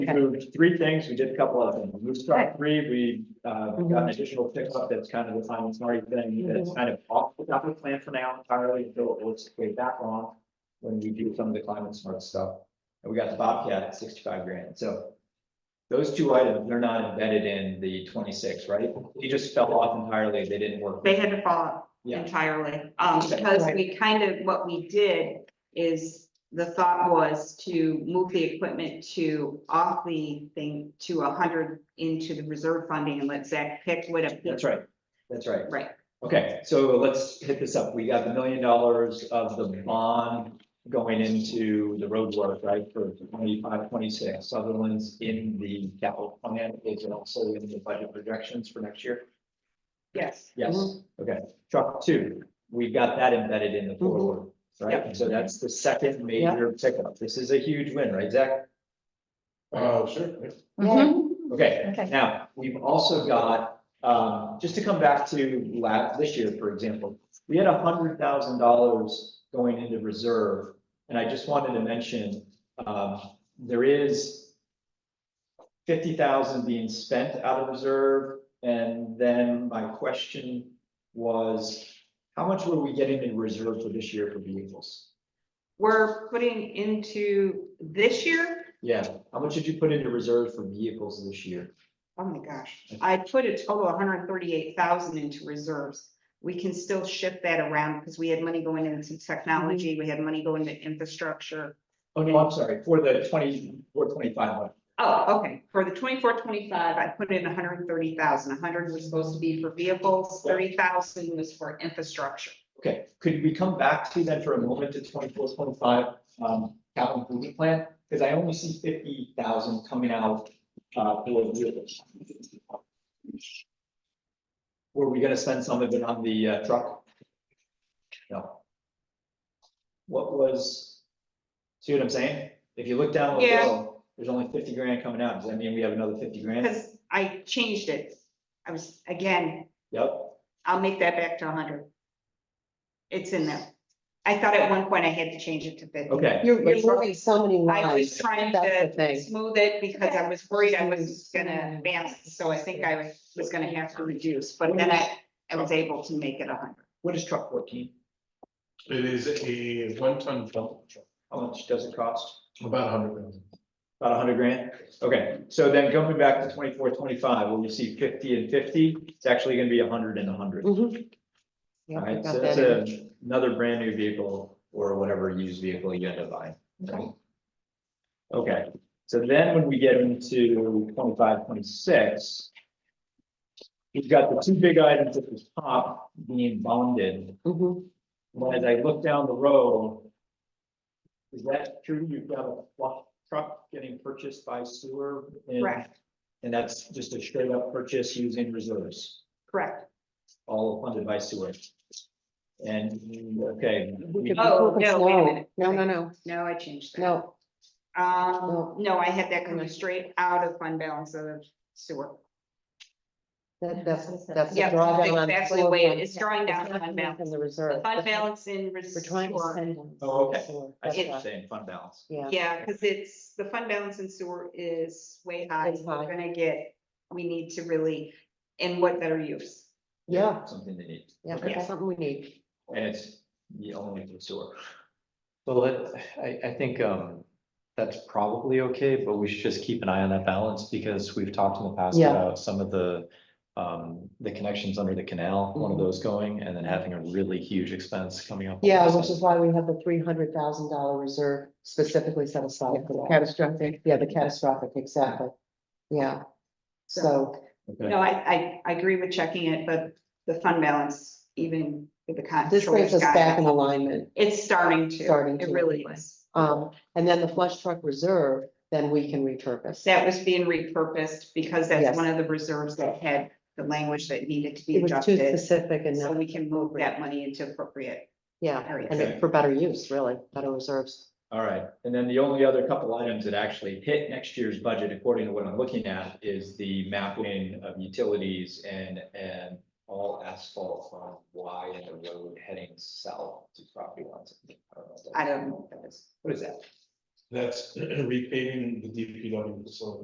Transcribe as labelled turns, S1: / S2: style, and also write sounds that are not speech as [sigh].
S1: We moved three things, we did a couple of them, we start three, we, uh,
S2: Mm-hmm.
S1: got an additional pickup that's kind of the final smarty thing, that's kind of off, the top of the plan for now entirely, until it looks way back on. When we do some of the climate smart stuff, and we got the Bobcat at sixty-five grand, so. Those two items, they're not embedded in the twenty-six, right? They just fell off entirely, they didn't work.
S2: They had to fall out
S1: Yeah.
S2: entirely, um,
S1: Okay.
S2: because we kind of, what we did is the thought was to move the equipment to off the thing to a hundred into the reserve funding and let Zach pick what a.
S1: That's right, that's right.
S2: Right,
S1: Okay, so let's hit this up. We got the million dollars of the bond going into the road work, right, for 25, 26. Sutherland's in the capital plan, is it also in the budget projections for next year?
S2: yes.
S1: Yes, okay. Truck two, we've got that embedded in the forward, right? So that's the second major pickup. This is a huge win, right, Zach?
S3: Oh, sure.
S1: Okay,
S4: Okay.
S1: Now, we've also got, um, just to come back to last, this year, for example, we had hundred thousand dollars going into reserve. And I just wanted to mention, um, there is fifty thousand being spent out of reserve. And then my question was, how much were we getting in reserve for this year for vehicles?
S2: We're putting into this year,
S1: Yeah, how much did you put into reserve for vehicles this year?
S2: oh my gosh, I put a total of hundred and thirty-eight thousand into reserves. We can still shift that around because we had money going into technology, we had money going to infrastructure.
S1: Oh, no, I'm sorry, for the twenty, for twenty-five hundred.
S2: Oh, okay, for the 24-25, I put in hundred and thirty thousand, hundred was supposed to be for vehicles,
S1: Yeah.
S2: thirty thousand was for infrastructure.
S1: Okay, could we come back to then for a moment to twenty-four, twenty-five, um, capital improvement plan? Because I only see fifty thousand coming out, uh, for vehicles. Were we gonna spend some of it on the uh, truck? No. What was, see what I'm saying? If you look down
S2: Yeah.
S1: below, there's only fifty grand coming out. Does that mean we have another fifty grand?
S2: Because I changed it, I was, again,
S1: Yep,
S2: I'll make that back to hundred. It's in there. I thought at one point I had to change it to fifty.
S1: okay.
S4: You're, you're moving so many
S2: I was
S4: lines.
S2: trying
S4: That's the
S2: to
S4: thing.
S2: smooth it because I was worried I was
S4: Smooth.
S2: gonna balance, so I think I was gonna have to reduce, but then I, I was able to make it hundred.
S1: What is truck fourteen?
S3: It is a one-ton dump truck,
S1: How much does it cost?
S3: about a hundred pounds.
S1: About a hundred grand? Okay, so then coming back to twenty-four, twenty-five, when you see fifty and fifty, it's actually gonna be a hundred and a hundred. All
S4: Mhm. Yeah, I
S1: right,
S4: got
S1: so
S4: that
S1: that's a-
S4: in.
S1: another brand new vehicle or whatever used vehicle you end up buying. right? Okay, so then when we get into 25, 26, We've got the two big items at the top being bonded.
S4: Mhm.
S1: Well, as I look down the road. Is that true? You've got a flush truck getting purchased by sewer? and-
S2: Correct.
S1: And that's just a straight up purchase using reserves,
S2: Correct.
S1: all funded by sewer. And, okay,
S4: We could be
S2: Oh,
S4: focused
S2: no, wait a
S4: now.
S2: minute.
S4: No, no, no,
S2: No, I changed that.
S4: no.
S2: Um,
S4: No. Mm-hmm.
S2: no, I had that coming straight out of fund balance of sewer.
S4: That, that's, that's a
S2: Yeah,
S4: drawdown on.
S2: exactly
S4: floor
S2: the way it
S4: plan.
S2: is, drawing down
S4: It's not
S2: fund
S4: coming
S2: balance.
S4: From the reserve.
S2: The Fund
S4: That's what
S2: balance in. res-
S4: We're trying to
S2: sewer.
S4: send. them.
S1: Oh, okay.
S4: Sewer.
S1: I
S4: That's
S1: see what you're
S4: why.
S1: saying, fund balance.
S4: Yeah.
S2: Yeah, because it's, the fund balance in sewer is way high.
S4: It's
S2: We're
S4: high.
S2: gonna get, we need to really, and what better use?
S4: Yeah,
S1: Something they need,
S4: yeah,
S1: Okay.
S4: that's something we need.
S1: and it's the only for sewer.
S5: So let, I, I think, um, that's probably okay, but we should just keep an eye on that balance because we've talked in the past
S4: Yeah.
S5: about some of the. Um, the connections under the canal, one of
S4: Mhm.
S5: those going and then having a really huge expense coming up.
S4: Yeah, which is why we have the three hundred thousand dollar reserve specifically set aside for that.
S6: Catastrophic.
S4: Yeah, the catastrophic, exactly. Yeah. So,
S5: Okay.
S2: No, I, I, I agree with checking it, but the fund balance, even with the con.
S4: this brings us
S2: sewer's got
S4: back
S2: it.
S4: in alignment.
S2: It's starting to.
S4: Starting
S2: It
S4: to.
S2: really is.
S4: Um, and then the flush truck reserve, then we can repurpose.
S2: That was being repurposed because that's
S4: Yes.
S2: one of the reserves that had the language that needed to be
S4: It was too
S2: adjusted.
S4: specific and
S2: So
S4: not,
S2: we can move that money into appropriate
S4: yeah, and
S2: areas.
S4: it- for better use, really, better reserves.
S1: All right, and then the only other couple items that actually hit next year's budget, according to what I'm looking at, is the mapping of utilities and, and all asphalt on Y and the road heading south to property lines. I don't know.
S2: I don't know what that is.
S1: What is that?
S3: [clears throat] That's repaving the DPW facility.